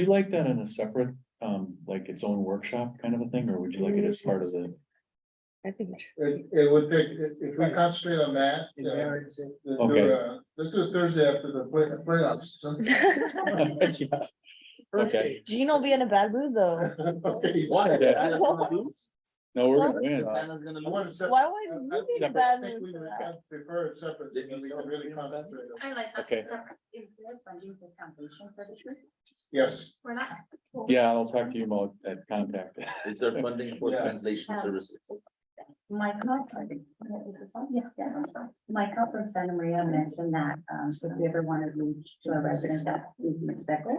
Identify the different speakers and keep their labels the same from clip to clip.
Speaker 1: you like that in a separate, um, like its own workshop kind of a thing, or would you like it as
Speaker 2: Mm.
Speaker 1: part of the?
Speaker 3: I think. it should-
Speaker 4: It, it would take, if if we concentrate on that, uh, then do,
Speaker 1: Okay.
Speaker 4: uh, let's do it Thursday after the play, playoffs.
Speaker 1: Yeah, Okay.
Speaker 3: Gene will be in a bad mood though.
Speaker 1: Yeah. No, we're gonna win.
Speaker 4: I want to sep-
Speaker 3: Why would
Speaker 4: I- I
Speaker 3: you be in a
Speaker 1: separate.
Speaker 3: bad
Speaker 4: think
Speaker 3: mood
Speaker 4: we
Speaker 3: for
Speaker 4: would
Speaker 3: that?
Speaker 4: have- Prefer it separate, so we can really concentrate. on-
Speaker 2: I like. that.
Speaker 1: Okay.
Speaker 2: So, Is there funding for foundation for the tree?
Speaker 4: Yes,
Speaker 2: We're not.
Speaker 1: Yeah, I'll talk to you about that contact.
Speaker 5: Is there funding for
Speaker 4: Yeah.
Speaker 5: translation services?
Speaker 2: My conference, yes, yeah, I'm sorry. My conference, Santa Maria mentioned that, um, so if you ever want to reach to a resident that's leaving expected,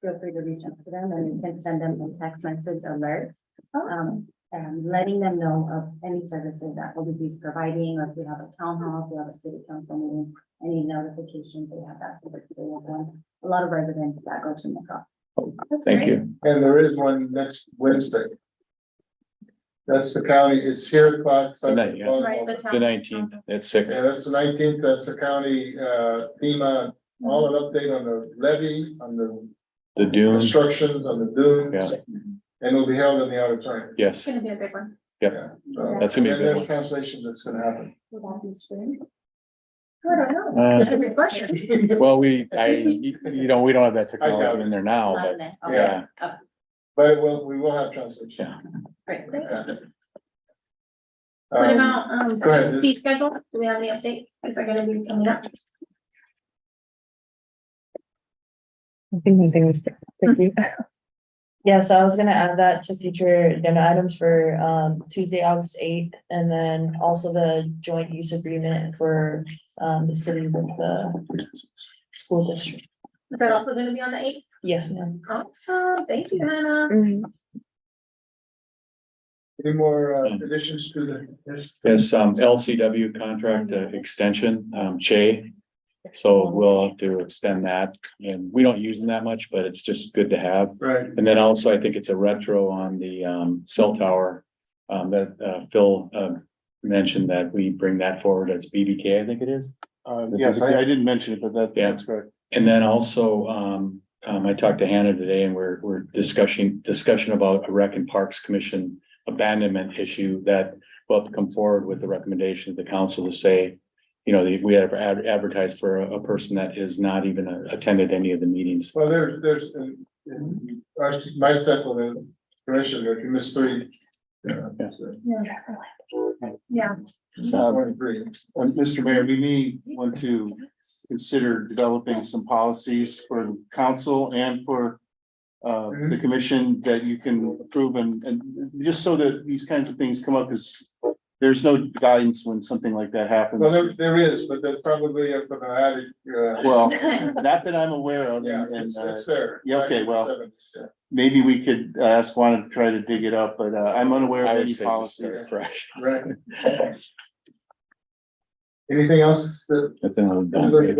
Speaker 2: feel free to reach out to them and you can send them a text message alert. Um, and letting them know of any services that OBG's providing, or if we have a town hall, if we have a city council meeting, any notifications, they have that. for the local. A lot of residents that go to McCall.
Speaker 1: Thank you.
Speaker 4: and there is one next Wednesday. That's the county, it's here o'clock. so-
Speaker 1: Tonight, yeah.
Speaker 2: Right, the
Speaker 1: The
Speaker 2: town.
Speaker 1: nineteenth at six.
Speaker 4: Yeah, that's the nineteenth, that's the county, uh, FEMA, all an update on the levy, on the
Speaker 1: The Dune,
Speaker 4: constructions, on the dunes. And it'll be held in the auditorium.
Speaker 1: yes,
Speaker 2: gonna be a big one.
Speaker 4: So-
Speaker 1: That's gonna be a good
Speaker 4: And there's
Speaker 1: one.
Speaker 4: Translation that's gonna happen.
Speaker 2: Would that be soon? I don't know.
Speaker 1: Uh,
Speaker 2: That's a good question.
Speaker 1: well, we, I, you know, we don't have that technology in there now,
Speaker 2: Not
Speaker 1: but
Speaker 2: there.
Speaker 1: yeah.
Speaker 2: Okay.
Speaker 4: But we'll, we will have translation.
Speaker 1: Yeah.
Speaker 2: Great.
Speaker 4: Yeah.
Speaker 6: What
Speaker 4: Um,
Speaker 6: about, um,
Speaker 4: Go ahead.
Speaker 6: fee schedule? Do we have any update? Is that gonna be coming up?
Speaker 3: I think one thing was, thank you. Yeah, so I was gonna add that to future agenda items for um Tuesday, August eighth, and then also the joint use agreement for um the city with the school district.
Speaker 6: Is that also gonna be on the eighth?
Speaker 3: Yes, ma'am.
Speaker 6: Awesome. Thank you, Hannah.
Speaker 3: Mm-hmm.
Speaker 4: Any more uh, additions to the? yes?
Speaker 1: Yes, um, LCW contract uh, extension, um, Che. So we'll have to extend that and we don't use them that much, but it's just good to have.
Speaker 4: Right,
Speaker 1: And then also I think it's a retro on the, um, cell tower. Um, that, uh, Phil, um, mentioned that we bring that forward. That's BBK, I think it is. yes, Uh, I-
Speaker 4: didn't mention it, but that,
Speaker 1: Yeah. that's
Speaker 4: correct.
Speaker 1: And then also, um, um, I talked to Hannah today and we're, we're discussing, discussion about a Rec and Parks Commission abandonment issue that will have to come forward with the recommendation to the council to say, you know, that we have ad- advertised for a, a person that is not even uh, attended any of the meetings.
Speaker 4: Well, there's, there's, uh, in our- my step on the commissioner, you missed three. uh,
Speaker 6: Yeah.
Speaker 4: just one agree.
Speaker 1: Um,
Speaker 7: Uh, Mr. Mayor, we may want to consider developing some policies for council and for uh,
Speaker 4: Mhm.
Speaker 7: the commission that you can approve and, and just so that these kinds of things come up is there's no guidance when something like that happens.
Speaker 4: Well, there, there is, but that's probably up for the attic, uh,
Speaker 7: Well, not that I'm aware of,
Speaker 4: yeah,
Speaker 7: and,
Speaker 4: it's,
Speaker 7: and, uh,
Speaker 4: it's there.
Speaker 7: yeah, okay, well.
Speaker 4: 1970s, yeah.
Speaker 7: maybe we could uh, ask Juan to try to dig it up, but uh, I'm unaware
Speaker 1: I
Speaker 7: of
Speaker 1: would
Speaker 7: any
Speaker 1: say just
Speaker 7: policies.
Speaker 1: that's fresh.
Speaker 4: Right. Anything else that,
Speaker 1: That's another-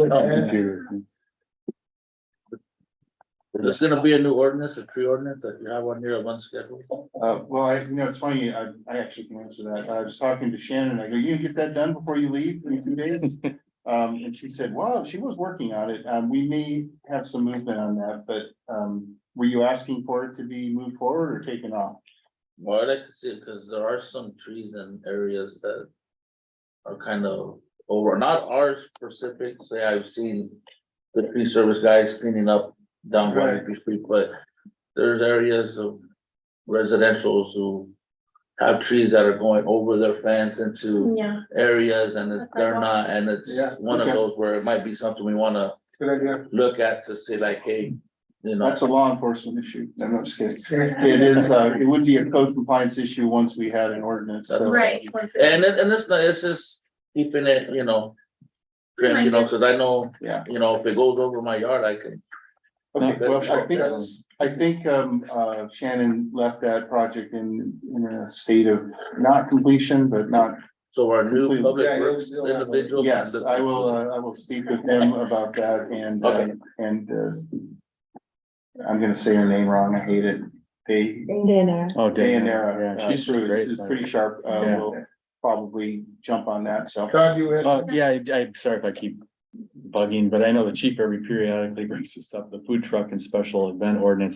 Speaker 5: There's gonna be a new ordinance, a tree ordinance, that you have one year of unscheduled.
Speaker 7: Uh, well, I, you know, it's funny, I, I actually can answer that. I was talking to Shannon, I go, you get that done before you leave in two days? Um, and she said, well, she was working on it. Um, we may have some movement on that, but, um, were you asking for it to be moved forward or taken off?
Speaker 5: Well, I like to see it, because there are some trees in areas that are kind of over, not ours specific, say I've seen the tree service guys cleaning up down
Speaker 4: Right.
Speaker 5: Waterloo Street, but there's areas of residentials who have trees that are going over their fence into
Speaker 6: Yeah.
Speaker 5: areas and it- they're not, and it's
Speaker 4: Yeah,
Speaker 5: one of
Speaker 7: okay.
Speaker 5: those where it might be something we wanna
Speaker 4: good idea?
Speaker 5: look at to see like, hey, you know.
Speaker 7: That's a law enforcement issue. No, no, I'm just kidding. It is, uh, it would be a code compliance issue once we had an ordinance, so.
Speaker 6: Right. once it's-
Speaker 5: And it, and it's not, it's just keeping it, you know. trim, you know, cause I know,
Speaker 7: Yeah.
Speaker 5: you know, if it goes over my yard, I can,
Speaker 7: Okay,
Speaker 5: No,
Speaker 7: well,
Speaker 5: that's-
Speaker 7: I think, I think, um, uh, Shannon left that project in, in a state of not completion, but not.
Speaker 5: so our new
Speaker 7: Completely.
Speaker 5: public
Speaker 4: Yeah, you'll-
Speaker 5: works
Speaker 4: you'll have one.
Speaker 5: individual. can
Speaker 7: Yes,
Speaker 5: look
Speaker 7: I
Speaker 5: into
Speaker 7: will,
Speaker 5: it.
Speaker 7: uh, I will speak with him about that and, uh,
Speaker 5: Okay.
Speaker 7: and, uh, I'm gonna say her name wrong. I hate it. They,
Speaker 3: Dinner.
Speaker 1: Oh,
Speaker 7: Dayanara.
Speaker 1: Yeah,
Speaker 7: uh,
Speaker 1: she's
Speaker 7: Cruz
Speaker 1: great.
Speaker 7: is pretty sharp. Uh,
Speaker 1: Yeah.
Speaker 7: will probably jump on that, so.
Speaker 4: Todd, you had,
Speaker 1: Uh, yeah, I- I'm sorry if I keep bugging, but I know the chief every periodically brings us up, the food truck and special event ordinance